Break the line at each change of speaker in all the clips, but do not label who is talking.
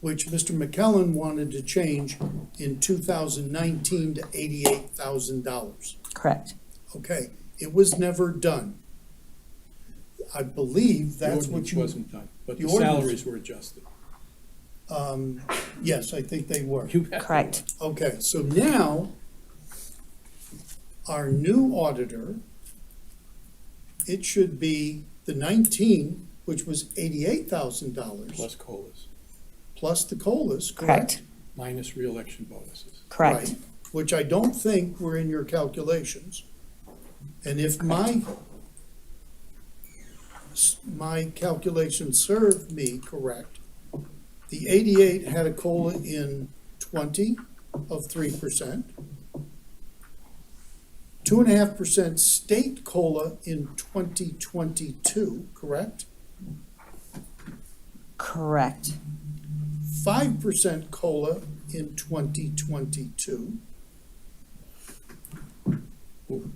which Mr. McKellen wanted to change in two thousand nineteen to eighty-eight thousand dollars.
Correct.
Okay, it was never done. I believe that's what
ordinance
you,
Wasn't done, but
the
the
ordinance-
salaries were adjusted.
yes, I think they were.
You bet.
Correct.
Okay, so now, our new auditor, it should be the nineteen, which was eighty-eight thousand dollars,
Plus COLAs,
plus the COLAs, correct?
Correct.
minus reelection bonuses.
Correct.
Right, Which I don't think were in your calculations. And if my, s- my calculations serve me correct, the eighty-eight had a COLA in twenty of three percent. Two and a half percent state COLA in twenty twenty-two, correct?
Correct.
five percent COLA in twenty twenty-two.
You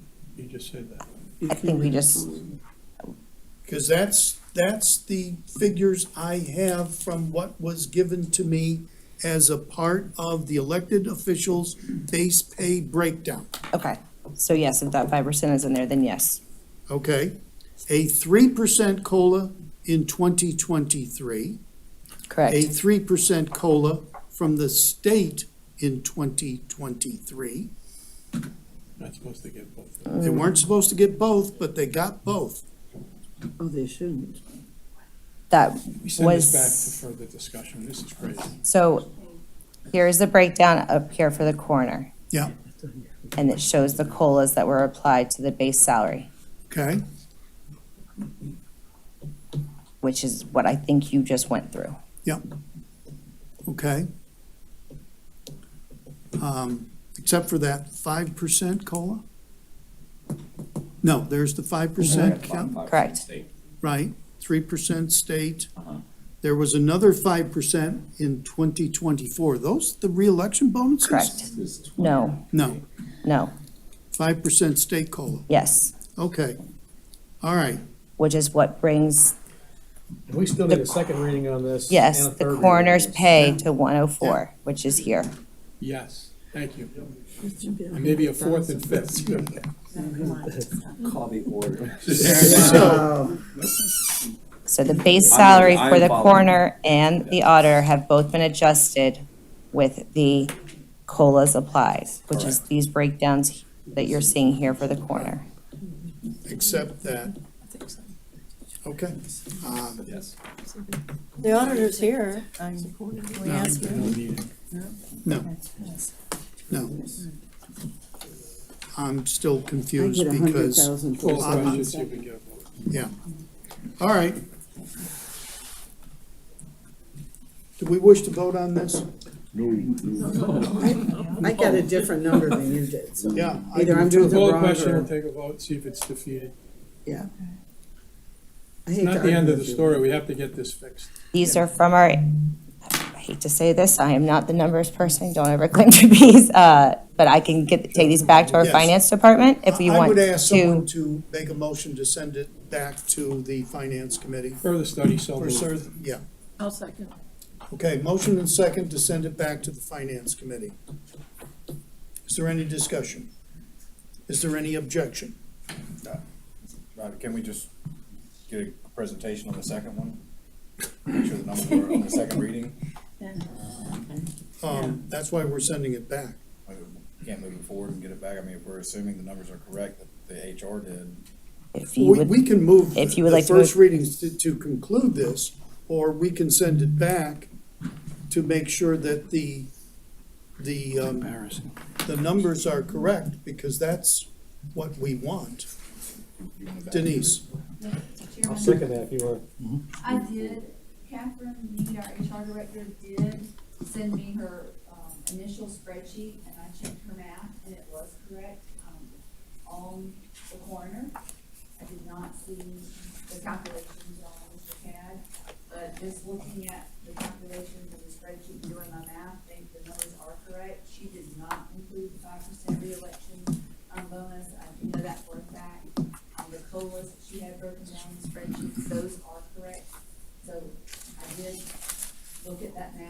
just said that.
I think we just,
Because that's, that's the figures I have from what was given to me as a part of the elected officials' base pay breakdown,
okay. So yes, if that five percent is in there, then yes.
okay? A three percent COLA in twenty twenty-three, a
Correct.
three percent COLA from the state in twenty twenty-three.
Not supposed to get both.
They weren't supposed to get both, but they got both.
Oh, they shouldn't.
That
We send this back
was,
to further discussion. This is crazy.
so here's the breakdown up here for the coroner.
Yeah.
And it shows the COLAs that were applied to the base salary,
Okay,
which is what I think you just went through.
okay. Um, Except for that five percent COLA? No, there's the five percent,
Correct.
right, three percent state. There was another five percent in twenty twenty-four. Those the reelection bonuses?
Correct. No,
No,
no,
five percent state COLA.
yes,
Okay, all right.
which is what brings,
And We still need a second reading on this.
yes,
and a third
the
reading on
coroner's
this.
pay to one oh four, which is here.
Yes, thank you. And maybe a fourth and fifth.
Call the order.
So the base salary
I'm-
for the
I'm
coroner and the auditor have both been adjusted with the COLAs applied, which is these breakdowns that you're seeing here for the coroner.
Except that, okay. Um,
Yes.
The auditor's here. I'm- We
No.
asked him.
No, no. I'm still
I
confused
get a hundred
because,
thousand
Full
for
questions, you can get a vote.
yeah. All right. Do we wish to vote on this?
I got a different number than you did, so
Yeah. I-
either I'm doing the
Call the
wrong
question, we'll
or,
take a vote, see if it's defeated.
yeah.
It's not the end of the story. We have to get this fixed.
These are from our, I hate to say this, I am not the numbers person, don't ever claim to be, uh, but I can get, take these back to our
Yes.
finance department if we
I- I
want
would ask someone
to.
to make a motion to send it back to the finance committee
Further study, so
for
moved.
certain, yeah.
I'll second.
Okay, motion and second to send it back to the finance committee. Is there any discussion? Is there any objection?
Roger, Uh, can we just get a presentation on the second one? Make sure the numbers are on the second reading,
Um, that's why we're sending it back.
Like, we can't move it forward and get it back, I mean, if we're assuming the numbers are correct that the HR did.
If you
We,
would,
we can move
if you would
the
like to
first
move-
readings to, to conclude this, or we can send it back to make sure that the, the, um,
Embarrassing.
the numbers are correct, because that's what we want. Denise,
I'll second that if you want.
I did, Catherine Mead, our HR director, did send me her um, initial spreadsheet, and I checked her math, and it was correct um, on the corner. I did not see the calculations on Mr. CAD, but just looking at the calculations of the spreadsheet and doing my math, I think the numbers are correct. She did not include the five percent reelection um, bonus, I do know that for a fact on the COLAs that she had broken down in the spreadsheet, those are correct. So I did look at that now.